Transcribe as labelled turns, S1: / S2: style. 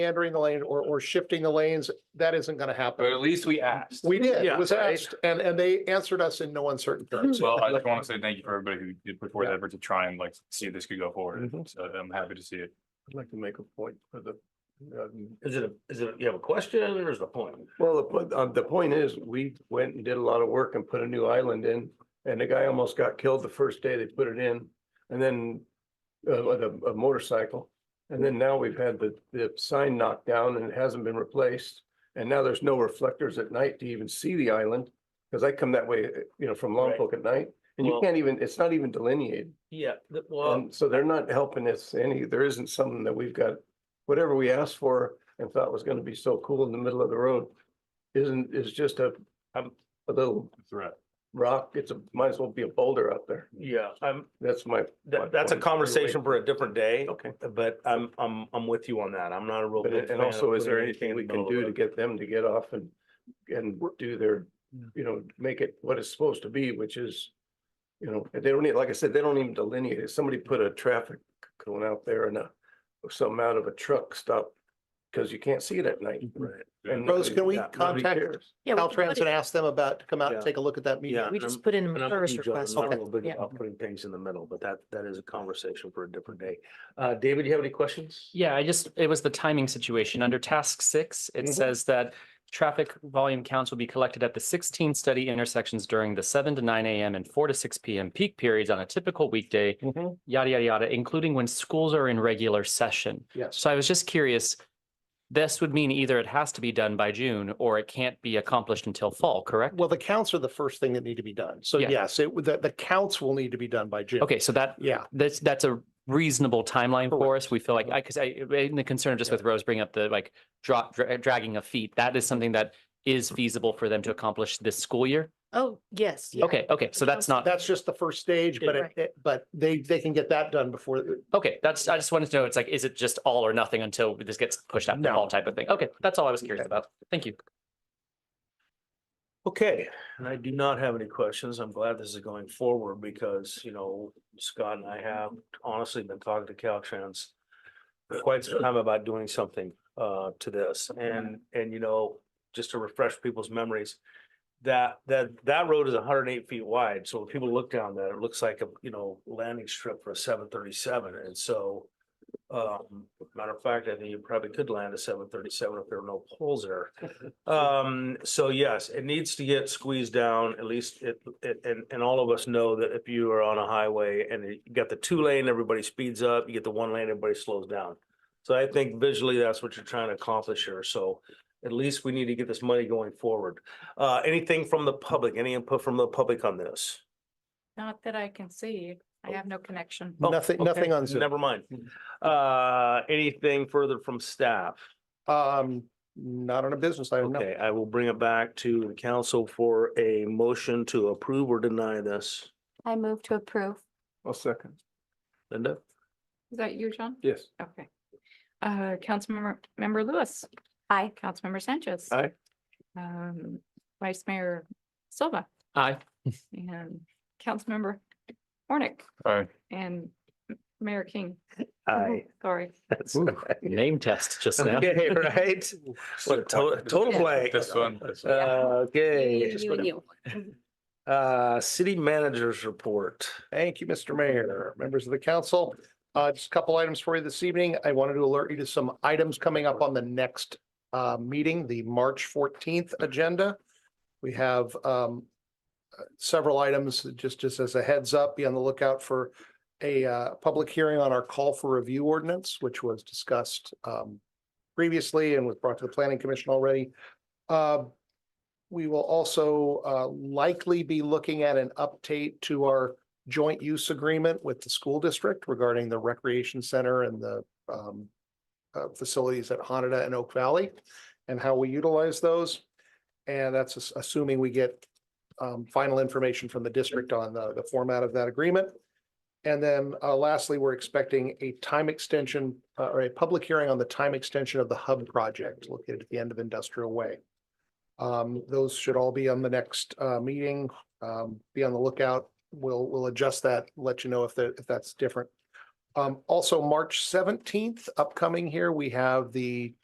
S1: meandering the lane or, or shifting the lanes, that isn't gonna
S2: But
S1: happen.
S2: at least we asked.
S1: We did,
S3: Yeah,
S1: it was
S3: right.
S1: asked, and, and they answered us in no uncertain terms.
S2: Well, I just want to say thank you for everybody who did put forth
S1: Yeah.
S2: effort to try and like see if this could go forward.
S1: Mhm.
S2: So I'm happy to see it.
S3: I'd like to make a point for the. um,
S4: Is it, a- is it, you have a question or is it a point?
S3: Well, the, point- uh, the point is, we went and did a lot of work and put a new island in, and the guy almost got killed the first day they put it in. And then, uh, with a, a motorcycle, and then now we've had the, the sign knocked down and it hasn't been replaced. And now there's no reflectors at night to even see the island, because I come that way, uh, you know, from
S4: Right.
S3: Lompoc at night, and you
S4: Well-
S3: can't even, it's not even delineated.
S4: Yeah, the- well,
S3: And so they're not helping us any, there isn't something that we've got, whatever we asked for and thought was gonna be so cool in the middle of the road. Isn't, is just a,
S4: Um,
S3: a little
S2: Threat.
S3: rock, it's a, might as well be a boulder out there,
S4: yeah, I'm,
S3: that's my. my
S4: that, that's a
S3: point.
S4: conversation for a different day,
S3: Okay,
S4: but I'm, I'm, I'm with you on that. I'm not a real.
S3: but
S4: big
S3: it- and
S4: fan
S3: also,
S4: of
S3: is there
S4: putting
S3: anything
S4: in
S3: we
S4: the
S3: can
S4: middle
S3: do
S4: of
S3: to
S4: the-
S3: get them to get off and, and do their, you know, make it what it's supposed to be, which is. You know, they don't need, like I said, they don't even delineate it, somebody put a traffic cone out there and a, something out of a truck stop. Cause you can't see it at night.
S4: Right.
S3: And
S1: Rose, can we
S3: yeah, nobody
S1: contact-
S3: cares.
S5: Yeah, we can
S1: Caltrans
S5: put
S1: and
S5: it-
S1: ask them about, to come out and
S4: Yeah.
S1: take a look at that
S4: Yeah.
S1: meeting.
S5: we
S4: and
S5: just put in a
S4: And I'm
S5: service
S4: with you, John.
S5: request.
S4: I'm not
S5: Okay.
S4: real big
S5: Yeah.
S4: about putting things in the middle, but that, that is a conversation for a different day. Uh, David, you have any questions?
S6: Yeah, I just, it was the timing situation. Under task six, it
S1: Mhm.
S6: says that traffic volume counts will be collected at the sixteen study intersections during the seven to nine AM and four to six PM peak periods on a typical weekday,
S1: Mhm.
S4: Mm-hmm.
S6: yada, yada, yada, including when schools are in regular session.
S1: Yes,
S6: So I was just curious, this would mean either it has to be done by June or it can't be accomplished until fall, correct?
S1: well, the counts are the first thing that need to be done. So
S6: Yeah.
S1: yes, it, would- the, the counts will need to be done by June.
S6: Okay, so that,
S1: Yeah, Uh-huh.
S6: that's, that's a reasonable timeline for us. We feel like, I, because I, in the concern just with Rose bringing up the like drop, dra- dragging of feet, that is something that is
S1: Mm-hmm.
S6: feasible for them to accomplish this school year?
S5: Oh, yes. yeah.
S6: Okay, okay, so that's not,
S1: that's just the first stage, but it-
S5: Right.
S1: it, but they, they can get that done before,
S6: okay, that's, I just wanted to know, it's like, is it just all or nothing until this gets pushed out to
S1: No.
S6: fall type of thing? Okay, that's all I was curious about. Thank you.
S4: Okay, and I do not have any questions. I'm glad this is going forward because, you know, Scott and I have honestly been talking to Caltrans for quite some time about doing something uh to this and, and you know, just to refresh people's memories, that, that, that road is hundred and eight feet wide. So when people look down that, it looks like a, you know, landing strip for a seven thirty-seven. And so um, matter of fact, I think you probably could land a seven thirty-seven if there were no poles there. Um, so yes, it needs to get squeezed down, at least it, it, and, and all of us know that if you are on a highway and you got the two lane, everybody speeds up, you get the one lane, everybody slows down. So I think visually that's what you're trying to accomplish here, so at least we need to get this money going forward. Uh, anything from the public, any input from the public on this?
S7: Not that I can see. I have no connection.
S4: Oh,
S1: nothing,
S4: okay,
S1: nothing on Zoom. Mm-hmm.
S4: Never mind. Uh, anything further from staff?
S1: Um, not on a business, I don't know.
S4: Okay, I will bring it back to the council for a motion to approve or deny this.
S7: I move to approve.
S3: I'll second,
S4: Linda?
S7: Is that you, John?
S3: yes.
S7: Okay. Uh, Councilmember, member Lewis. Aye. Councilmember Sanchez.
S3: Aye.
S7: Um, Vice Mayor Silva
S6: Aye.
S7: and Councilmember Hornick
S2: All right.
S7: and Mayor King.
S4: Aye.
S7: Sorry.
S4: That's
S3: Ooh.
S4: right.
S6: Name test just now.
S4: Okay, right? What a to- total blank.
S2: This one. this
S4: Uh,
S2: one.
S4: Okay.
S5: You and you.
S4: Uh, city managers report.
S1: Thank you, Mr. Mayor, members of the council. Uh, just a couple items for you this evening. I wanted to alert you to some items coming up on the next uh, meeting, the March fourteenth agenda. We have um several items, just just as a heads up, be on the lookout for a uh public hearing on our call for review ordinance, which was discussed um previously and was brought to the planning commission already. Uh, we will also uh likely be looking at an update to our joint use agreement with the school district regarding the recreation center and the um uh, facilities at Hanada and Oak Valley and how we utilize those. And that's as- assuming we get um final information from the district on the the format of that agreement. And then uh lastly, we're expecting a time extension uh, or a public hearing on the time extension of the hub project located at the end of Industrial Way. Um, those should all be on the next uh meeting. Um, be on the lookout we'll, we'll adjust that, let you know if that, if that's different. Um, also, March seventeenth, upcoming here, we have the